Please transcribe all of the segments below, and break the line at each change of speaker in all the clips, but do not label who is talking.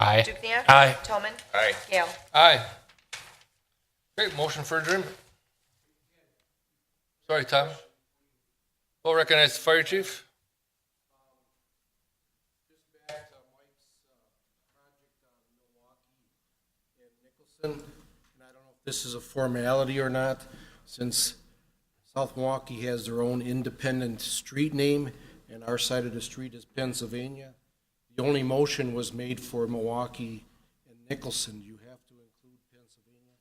Aye.
Dukenyak.
Aye.
Toman.
Aye.
Gale.
Aye. Great, motion for adjournment. Sorry, Tom. We'll recognize the fire chief.
uh, Nicholson, and I don't know if this is a formality or not, since South Milwaukee has their own independent street name, and our side of the street is Pennsylvania. The only motion was made for Milwaukee and Nicholson. You have to include Pennsylvania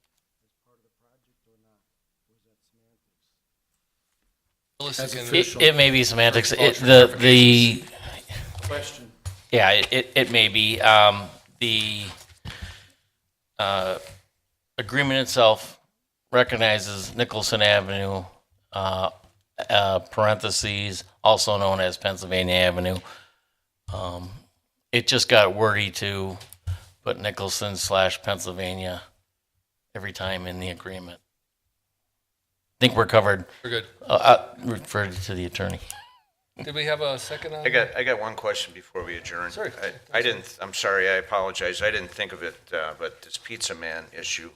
as part of the project or not? Or is that semantics?
Melissa
That's
can-
official.
It, it may be semantics. It,
Motion
the, the,
Question.
yeah, it- it, it may be. Um, the, uh, agreement itself recognizes Nicholson Avenue, uh, uh, parentheses, also known as Pennsylvania Avenue. Um, it just got wordy to put Nicholson slash Pennsylvania every time in the agreement. I think we're covered.
We're good.
Uh, uh, referred to the attorney.
Did we have a second on?
I got, I got one question before we adjourn.
Sorry.
I- I didn't, I'm sorry, I apologize, I didn't think of it, uh, but this pizza man issue.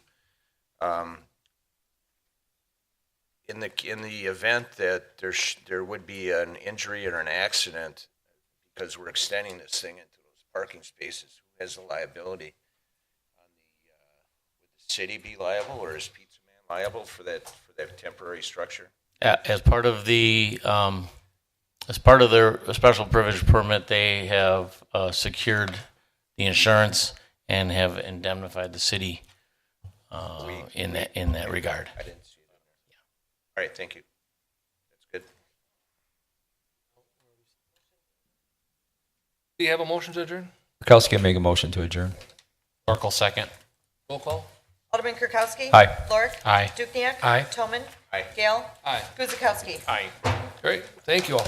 um, In the, in the event that there, sh- there would be an injury or an accident, because we're extending this thing into those parking spaces, who has the liability? On the, uh, Would the city be liable, or is pizza man liable for that, for that temporary structure?
A- As part of the, um, as part of their special privilege permit, they have uh, secured the insurance and have indemnified the city uh, in that, in that regard.
I didn't see it on there. All right, thank you. That's good.
Do you have a motion to adjourn?
Kirkowski make a motion to adjourn.
Oracle second.
Roll call.
Alderman Kirkowski.
Aye.
Lorik.
Aye.
Dukenyak.
Aye.
Toman.
Aye.
Gale.
Aye.
Guzekowski.
Aye.
Great. Thank you all.